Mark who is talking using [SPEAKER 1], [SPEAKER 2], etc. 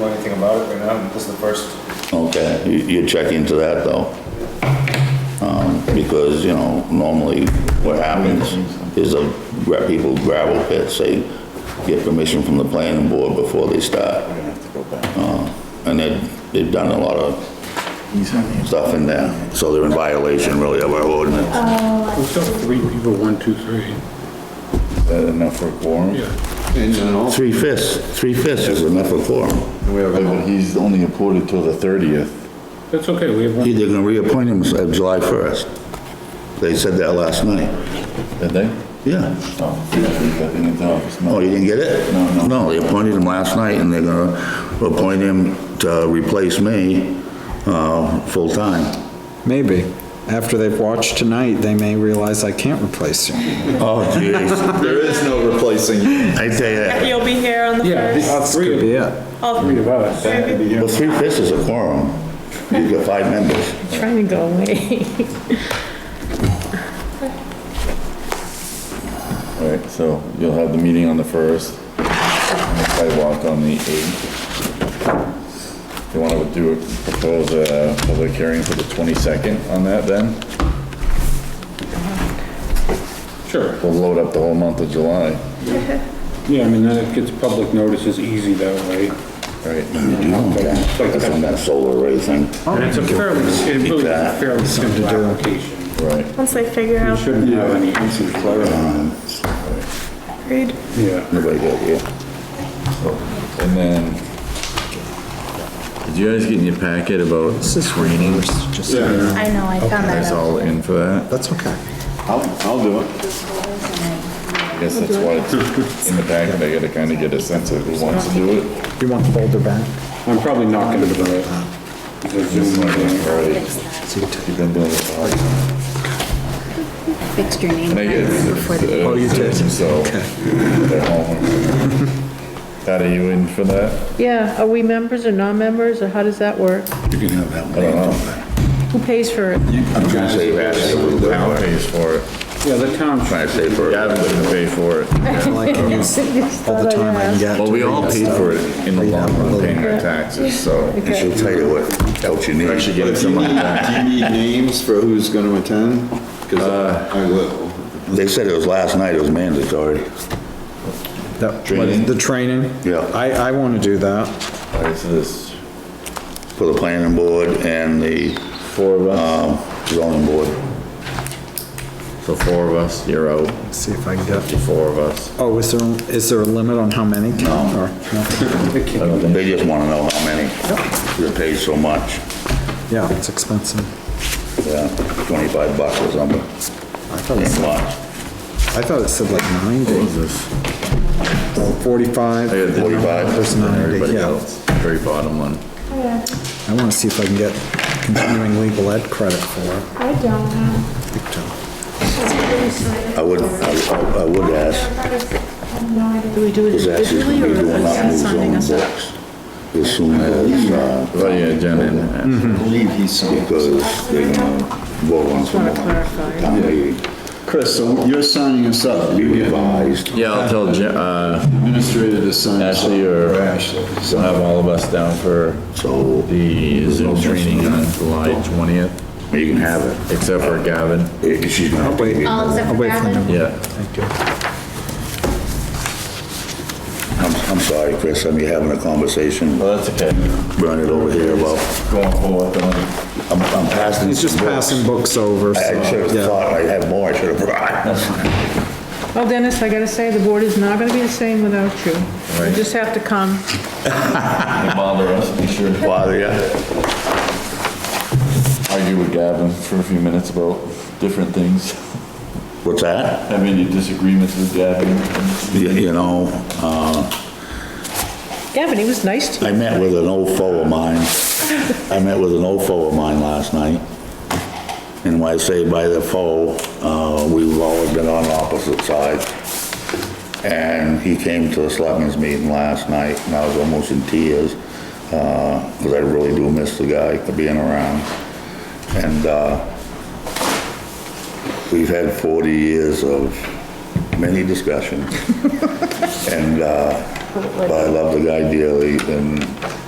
[SPEAKER 1] know anything about it right now, this is the first.
[SPEAKER 2] Okay, you- you check into that though. Um, Because, you know, normally what happens is a, gra- people gravel pits, they get permission from the planning board before they start. Uh, And they've, they've done a lot of stuff in there, so they're in violation really of our ordinance.
[SPEAKER 3] We've got three people, one, two, three.
[SPEAKER 4] that enough for a quorum?
[SPEAKER 2] Three fifths, three fifths is enough for quorum.
[SPEAKER 4] But he's only appointed till the 30th.
[SPEAKER 3] That's okay, we have one.
[SPEAKER 2] They're gonna reappoint him uh, July 1st. They said that last night.
[SPEAKER 4] Did they?
[SPEAKER 2] Yeah.
[SPEAKER 4] Oh, he's getting into office now.
[SPEAKER 2] Oh, you didn't get it?
[SPEAKER 4] No, no.
[SPEAKER 2] No, they appointed him last night, and they're gonna appoint him to replace me, uh, full-time.
[SPEAKER 5] Maybe. After they've watched tonight, they may realize I can't replace you.
[SPEAKER 2] Oh, jeez.
[SPEAKER 6] There is no replacing you.
[SPEAKER 2] I tell you that.
[SPEAKER 7] You'll be here on the
[SPEAKER 3] Yeah,
[SPEAKER 7] first?
[SPEAKER 3] the Uh, three, of-
[SPEAKER 5] Yeah.
[SPEAKER 7] I'll
[SPEAKER 3] three of us.
[SPEAKER 2] Well, three-fifths is a quorum. You've got five members.
[SPEAKER 7] try to go away.
[SPEAKER 4] All right, so you'll have the meeting on the 1st, and the sidewalk on the 8th. You want to do, propose a public hearing for the 22nd on that then?
[SPEAKER 3] Sure,
[SPEAKER 4] We'll load up the whole month of July,
[SPEAKER 3] yeah, I mean, then it gets public notice is easy that way.
[SPEAKER 4] right?
[SPEAKER 3] It's like-
[SPEAKER 2] That's on that solar array thing.
[SPEAKER 3] And it's a fairly, it really is a fairly simple
[SPEAKER 5] do.
[SPEAKER 3] application.
[SPEAKER 4] Right.
[SPEAKER 7] Once I figure
[SPEAKER 3] You
[SPEAKER 7] out the
[SPEAKER 3] shouldn't have any issues there.
[SPEAKER 7] grade.
[SPEAKER 3] Yeah,
[SPEAKER 2] Uh, Nobody got here.
[SPEAKER 4] And then, did you guys get in your packet about screening?
[SPEAKER 5] Just,
[SPEAKER 3] yeah,
[SPEAKER 8] I know, I found
[SPEAKER 4] Is
[SPEAKER 8] that out.
[SPEAKER 4] all in for that?
[SPEAKER 5] that's okay.
[SPEAKER 4] I guess that's why it's in the packet, I gotta kinda get a sense of who wants to do it.
[SPEAKER 5] You want the folder back?
[SPEAKER 3] I'm probably not gonna do it. The
[SPEAKER 4] It's
[SPEAKER 3] Zoom
[SPEAKER 4] not gonna
[SPEAKER 3] meeting.
[SPEAKER 4] hurt.
[SPEAKER 5] So you took-
[SPEAKER 4] You've been doing this a lot.
[SPEAKER 8] Fixed your name
[SPEAKER 4] They get it.
[SPEAKER 8] before the
[SPEAKER 4] Oh,
[SPEAKER 5] you did.
[SPEAKER 4] So, they're home. Pat, are you in for that?
[SPEAKER 9] Yeah, are we members or non-members, or how does that work?
[SPEAKER 2] You can have that one.
[SPEAKER 4] I don't know.
[SPEAKER 9] Who pays for it?
[SPEAKER 2] I'm trying to save Ashley a little
[SPEAKER 4] The
[SPEAKER 2] bit.
[SPEAKER 4] town pays for it.
[SPEAKER 3] Yeah, the town
[SPEAKER 2] Trying to save her.
[SPEAKER 4] Gavin doesn't pay for it.
[SPEAKER 5] I like it. All the time I can get.
[SPEAKER 4] Well, we all paid for it in the long run, paying our taxes, so.
[SPEAKER 2] And she'll tell you what else you need.
[SPEAKER 4] Actually getting
[SPEAKER 6] Do you
[SPEAKER 4] someone
[SPEAKER 6] need,
[SPEAKER 4] back.
[SPEAKER 6] do you need names for who's gonna attend?
[SPEAKER 4] Uh,
[SPEAKER 6] Cause I will.
[SPEAKER 2] They said it was last night, it was mandatory.
[SPEAKER 5] That-
[SPEAKER 4] Training.
[SPEAKER 5] The training?
[SPEAKER 2] Yeah.
[SPEAKER 5] I, I want to do that.
[SPEAKER 4] What is this?
[SPEAKER 2] For the planning board and the,
[SPEAKER 4] Four of us?
[SPEAKER 2] um, zoning board.
[SPEAKER 4] So four of us, you're out,
[SPEAKER 5] See if I can get,
[SPEAKER 4] the four of us.
[SPEAKER 5] oh, is there, is there a limit on how many? No. Or, no?
[SPEAKER 2] They just wanna know how many. They paid so much.
[SPEAKER 5] Yeah, it's expensive.
[SPEAKER 2] Yeah, 25 bucks or something.
[SPEAKER 5] I thought it
[SPEAKER 2] Ain't
[SPEAKER 5] said,
[SPEAKER 2] much.
[SPEAKER 5] I thought it said like 90
[SPEAKER 4] this?
[SPEAKER 5] or 45.
[SPEAKER 4] I got the
[SPEAKER 2] Forty-five.
[SPEAKER 5] There's 90,
[SPEAKER 4] Everybody
[SPEAKER 5] yeah.
[SPEAKER 4] else, very bottom one.
[SPEAKER 5] I want to see if I can get continuing legal ed credit for it.
[SPEAKER 8] I don't know.
[SPEAKER 5] Big time.
[SPEAKER 2] I would, I I would ask,
[SPEAKER 9] Do we do it
[SPEAKER 2] is actually
[SPEAKER 9] individually,
[SPEAKER 2] gonna be
[SPEAKER 9] or
[SPEAKER 2] doing
[SPEAKER 9] is
[SPEAKER 2] up new
[SPEAKER 9] it signing
[SPEAKER 2] zoning
[SPEAKER 9] us up? Mm-hmm.
[SPEAKER 2] books as soon as, uh,
[SPEAKER 4] Oh, yeah, Jen and
[SPEAKER 6] I believe he's signed.
[SPEAKER 2] because they're gonna vote on some
[SPEAKER 9] Want to
[SPEAKER 2] more.
[SPEAKER 9] clarify?
[SPEAKER 2] Town meeting
[SPEAKER 6] Chris, so you're signing us up. You get
[SPEAKER 2] revised.
[SPEAKER 4] Yeah, I'll tell Jen, uh,
[SPEAKER 6] administrator to sign us up.
[SPEAKER 4] Ashley or-
[SPEAKER 6] Ashley.
[SPEAKER 4] So have all of us down for
[SPEAKER 2] So
[SPEAKER 4] the Zoom training on July 20th,
[SPEAKER 2] you can have it.
[SPEAKER 4] except for Gavin.
[SPEAKER 2] Eh, She's gonna have to
[SPEAKER 5] Wait.
[SPEAKER 2] give
[SPEAKER 8] All
[SPEAKER 2] you-
[SPEAKER 8] except
[SPEAKER 5] I'll
[SPEAKER 8] for
[SPEAKER 5] wait for
[SPEAKER 8] Gavin.
[SPEAKER 5] them.
[SPEAKER 4] Yeah.
[SPEAKER 5] Thank you.
[SPEAKER 2] I'm, I'm sorry, Chris, I'm having a conversation,
[SPEAKER 4] Well, that's okay.
[SPEAKER 2] run it over here about,
[SPEAKER 4] Going forward, going.
[SPEAKER 2] I'm, I'm passing.
[SPEAKER 5] He's just
[SPEAKER 2] some books.
[SPEAKER 5] passing books over,
[SPEAKER 2] I
[SPEAKER 5] so,
[SPEAKER 2] I should've
[SPEAKER 5] yeah.
[SPEAKER 2] thought, I had more, I should've brought.
[SPEAKER 9] Well, Dennis, I gotta say, the board is not gonna be the same without you. You
[SPEAKER 4] Right.
[SPEAKER 9] just have to come.
[SPEAKER 4] Don't bother us, be sure to
[SPEAKER 2] Bother ya?
[SPEAKER 4] argue with Gavin for a few minutes about different things.
[SPEAKER 2] What's that?
[SPEAKER 4] Have any disagreements with Gavin?
[SPEAKER 2] You you know, uh,
[SPEAKER 9] Gavin, he was nice to
[SPEAKER 2] I met with an old foe of mine. I met with an old foe of mine last night. And when I say by the foe, uh, we've always been on opposite sides. And he came to the selectmen's meeting last night and I was almost in tears, uh, cause I really do miss the guy for being around. And, uh, we've had 40 years of many discussions. And, uh, but I love the guy dearly, and